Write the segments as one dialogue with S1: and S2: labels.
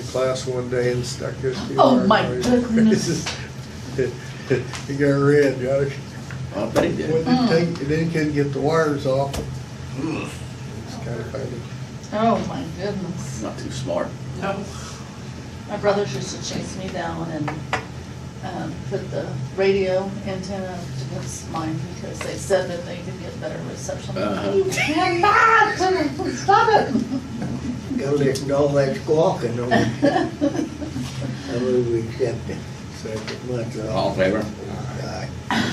S1: class one day and stuck his.
S2: Oh,
S1: QR
S2: my
S1: on his-
S2: goodness.
S1: He got red, got it.
S3: I bet Uh, he
S1: When
S3: did.
S2: Mm.
S1: they take, then he couldn't get the wires off. It's kind of funny.
S2: Oh, my goodness.
S3: Not too smart.
S2: No. My brothers used to chase me down and, um, put the radio antenna up against mine because they said that they could get better reception.
S3: Uh-huh.
S2: You cannot, stop it.
S4: Go listen to all that squawking on, I move we accept it. Second month
S3: All in
S4: off.
S3: favor?
S4: Aye.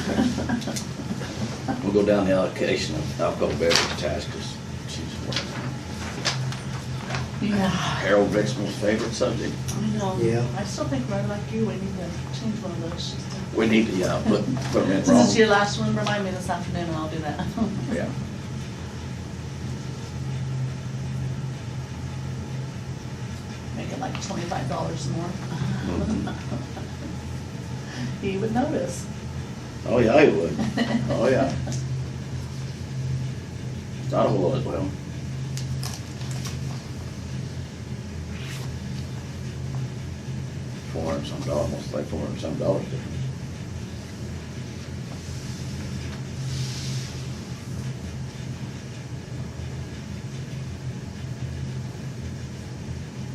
S3: We'll go down the allocation of alcohol beverage tax, because she's one of
S2: Yeah,
S3: Harold Rick's most favorite subject.
S2: I know.
S4: Yeah.
S2: I still think, right like you, we need to change one of those.
S3: We need to, yeah, put, put them in
S2: Since it's your
S3: wrong.
S2: last one, remind me this afternoon and I'll do that.
S3: Yeah.
S2: Make it like twenty-five dollars more.
S3: Mhm.
S2: He would notice.
S3: Oh, yeah, he would. Oh, yeah. It's Not a whole lot, well. Four and some dollars, almost like four and some dollars difference.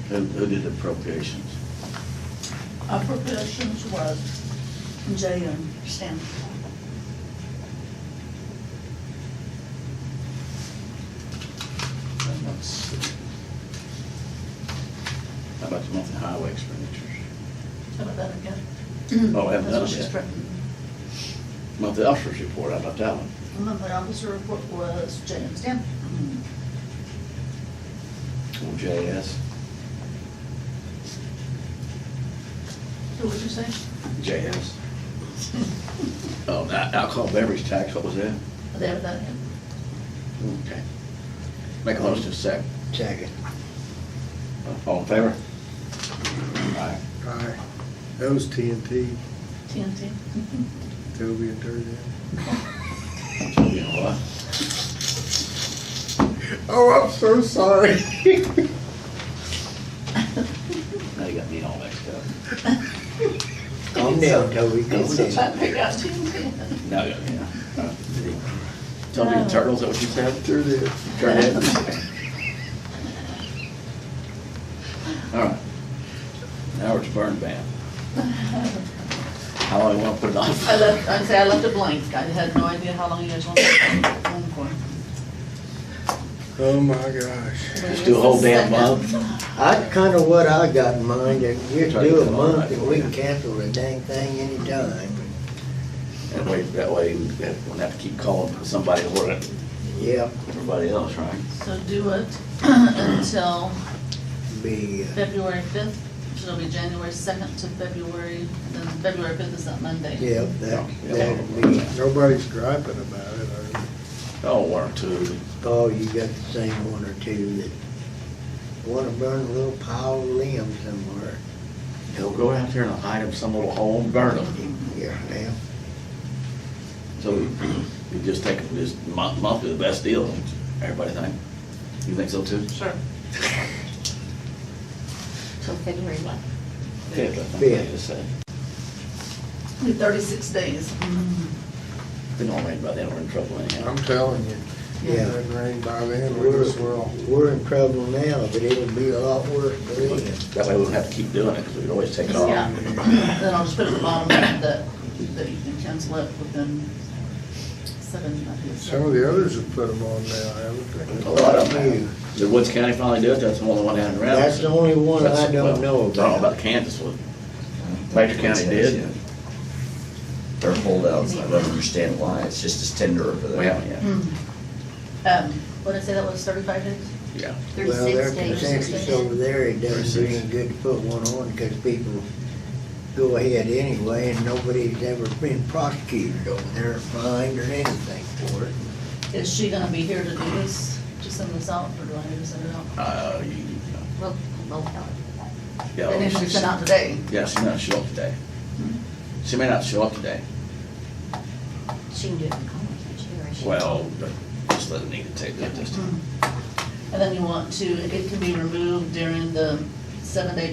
S3: Who, who did appropriations?
S2: Appropriations was Jay and Stan.
S3: And let's see. How about the monthly highway expenditures?
S2: How about that again?
S3: Oh, I haven't
S2: That's
S3: done
S2: what
S3: it
S2: she's
S3: yet.
S2: written.
S3: Monthly officers report, how about that one?
S2: The monthly officer report was Mm-hmm. Jay and Stan.
S3: JS,
S2: Who would you say?
S3: JS. Oh, that alcohol beverage tax, what was that?
S2: There, that, again.
S3: Okay. Make a motion to second.
S4: Second.
S3: All in favor? Aye.
S1: Aye. That was TNT,
S2: TNT.
S1: Toby and Dirty.
S3: You know what?
S1: Oh, I'm so sorry.
S3: Now you got me all mixed up.
S4: Calm down, Toby,
S2: I
S4: calm down.
S2: pick out TNT.
S3: Now you got me, yeah. Tell me the turtles, is that what you said?
S1: Sure did.
S3: Turn All right. Now it's burn ban. How long you wanna put it off?
S2: I left, I'd say I left it blank. I had no idea how long you guys wanted it on for.
S1: Oh, my gosh.
S3: Just do a whole damn month?
S4: That's kinda what I got in mind, that we
S3: Try to
S4: do a
S3: come on
S4: month
S3: right
S4: and
S3: for
S4: we
S3: you.
S4: can cancel the dang thing anytime.
S3: That way, that way, we don't have to keep calling somebody or
S4: Yep,
S3: everybody else, right?
S2: So do it until
S4: be, uh,
S2: February fifth, which will be January second to February, and then February fifth is that Monday.
S4: yep, that,
S3: Yeah.
S4: that'll be,
S1: Nobody's griping about it. are they?
S3: Oh, one or two.
S4: oh, you got the same one or two that wanna burn a little pile of limbs somewhere.
S3: He'll go out there and hide him some little hole and burn him.
S4: Yeah, now.
S3: So we just take, this month, month is the best deal, everybody think? You think so too?
S2: Sure.
S5: Till February what?
S3: Yeah, I think
S4: Yeah.
S3: they just said.
S2: Be thirty-six days.
S3: They don't rain by then, we're in trouble anyhow.
S1: I'm telling you.
S4: Yeah.
S1: That rain by then, we
S4: We're,
S1: just will.
S4: we're in trouble now, but it'll be a lot worse, believe me.
S3: That way we don't have to keep doing it, because we'd always take it off.
S2: Yeah, then I'll just put at the bottom that, that you can cancel it within seven, I think.
S1: Some of the others have put them on now, haven't
S3: A
S1: they?
S3: lot of them. have. Did Woods County finally do it? That's the only one down around.
S4: That's the only one I don't know
S3: Talking
S4: about.
S3: about Kansas, was. Major County did.
S6: They're holdouts, I don't understand why, it's just as tender over there.
S3: We haven't yet.
S2: Hmm. Um, what did I say, that was thirty-five days?
S3: Yeah.
S4: Well, their
S5: Thirty-six
S4: consensus
S5: days.
S4: over there, it doesn't do any good to put one on because people go ahead anyway and nobody's ever been prosecuted over there, fined or anything for it.
S2: Is she gonna be here to do this, to send this out, or do I need to send it out?
S3: Uh, you-
S5: We'll, we'll tell it.
S3: yeah.
S2: They didn't
S3: she's-
S2: send out today.
S3: Yeah, she may not show up today. She may not show up today.
S5: She can do it in college, can't she, or is she?
S3: Well, but just let it need to take
S2: Hmm.
S3: that this time.
S2: And then you want to, it can be removed during the seven-day